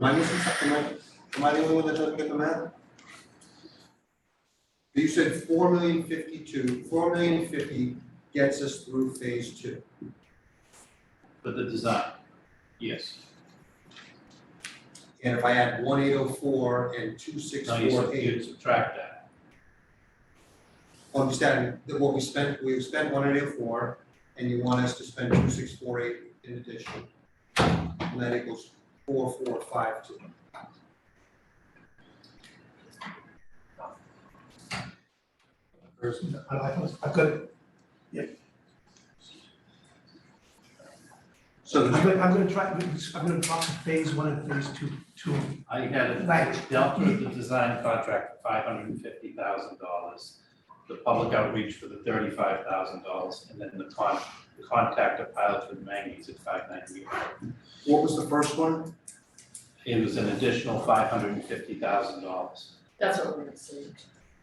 Am I missing something? Am I- Am I the only one that doesn't get the math? You said four million fifty-two, four million fifty gets us through phase two. But the design, yes. And if I add one eight oh four and two six Now you four sub- you eight, subtract that, I'm just adding that what we spent, we spent one eight oh four, and you want us to spend two six four eight in addition. And that equals four four five two. I like it. I've got it. So I'm the- gonna, I'm gonna try, I'm gonna talk to phase one and phase two, two. I had it Right. dealt with the design contract for five hundred and fifty thousand dollars, the public outreach for the thirty-five thousand dollars, and then the con, the contact of pilots with manganese at five ninety-one. what was the first one? It was an additional five hundred and fifty thousand dollars. That's what we're gonna see.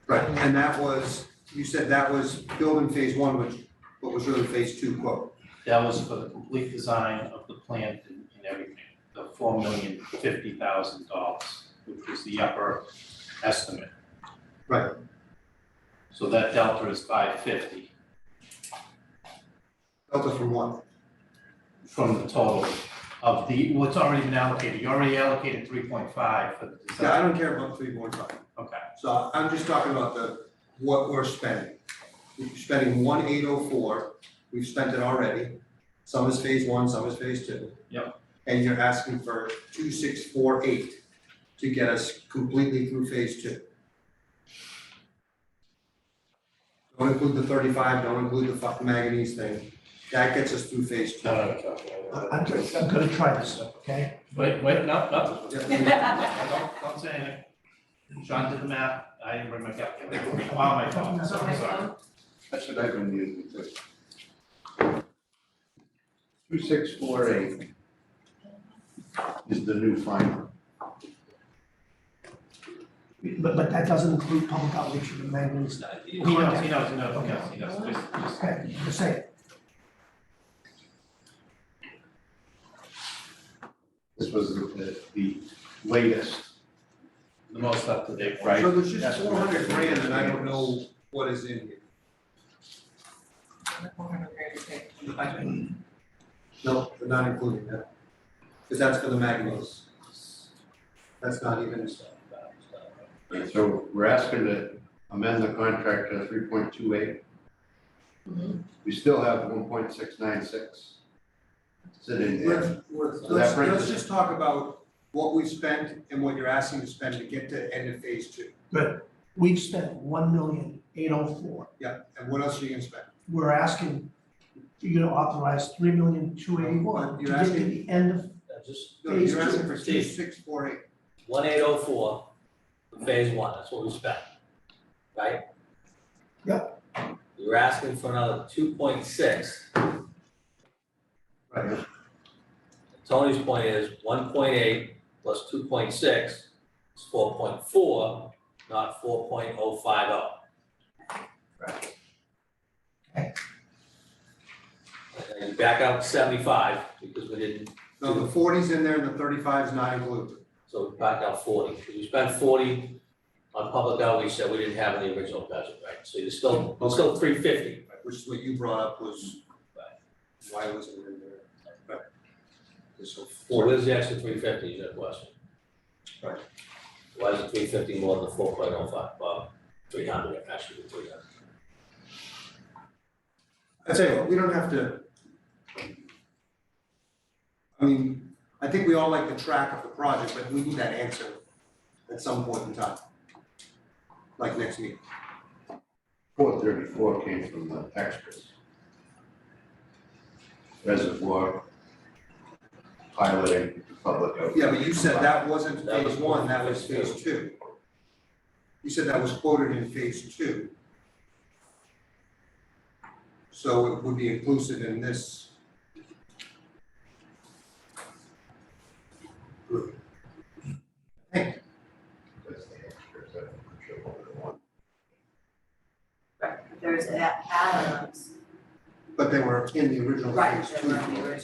Right, and that was, you said that was building phase one, which, what was really phase two quote. That was for the complete design of the plant and and everything, the four million fifty thousand dollars, which was the upper estimate. Right. So that delta is five fifty Delta from what? from the total of the, what's already been allocated, you already allocated three point five for the Yeah, I design. don't care about three point five. Okay, So I'm just talking about the, what we're spending. We're spending one eight oh four, we've spent it already. Some is phase one, some is phase two. Yep. And you're asking for two six four eight to get us completely through phase two. Don't include the thirty-five, don't include the fucking manganese thing. That gets us through phase two. no, I- uh, I'm, just- I'm gonna try this stuff, okay? Wait, wait, no, no, Yeah. don't say anything. Sean did the math, I didn't bring my calculator, wow, my phone, I'm Okay, sorry. so That's what I've been using too. Two six four eight is the new final. But, but that doesn't include public outreach and the manganese stuff. He knows, he knows, he knows, he knows, he knows, just, just. Okay, just say, This was the, the latest. the most up to date, Right. right? So there's That's just what four hundred we're- grand and I don't know what is in here. we're gonna create a big- No, we're not including that. Because that's for the Magnos. That's not even, And so we're asking to amend the contract to three point two eight. Mhm. We still have one point six nine six sitting there. let's, let's, So that let's, brings let's us- just talk about what we spent and what you're asking to spend to get to end of phase two. we've spent one million, eight oh four. And what else are you gonna spend? We're asking, you to authorize three million, two eighty-one to You're get to asking- the end of, Uh, Just No, Phase you're two. asking for two, Phase- six, four, eight. one eight oh four, phase one, that's what we spent, right? Yep. You're asking for another two point six, Right. Tony's point is one point eight plus two point six is four point four, not four point oh five oh. Okay. And you back out seventy-five, because we didn't, No, the forty's in there and the thirty-five's not included. so we back out forty, because we spent forty on public outreach that we didn't have in the original budget, right? So you're still, it's still three fifty. Right, Which is what you brought up was, why wasn't it in there? Right. So Or four, where's the extra three fifty, is that question? Right. Why is it three fifty more than four point oh five, well, three hundred, actually, three hundred. I tell you what, we don't have to. I mean, I think we all like the track of the project, but we need that answer at some point in time. Like next meeting. Four thirty-four came from the extras. Reservoir. Piloting, public. outreach. Yeah, but you said that wasn't That was phase one, that was phase two. You said that was quoted in phase two. So it would be inclusive in this. group. That's the extras, I'm not sure what we want. Right, there's a- add-ons, But they were in the original right, phase that two. were in the original.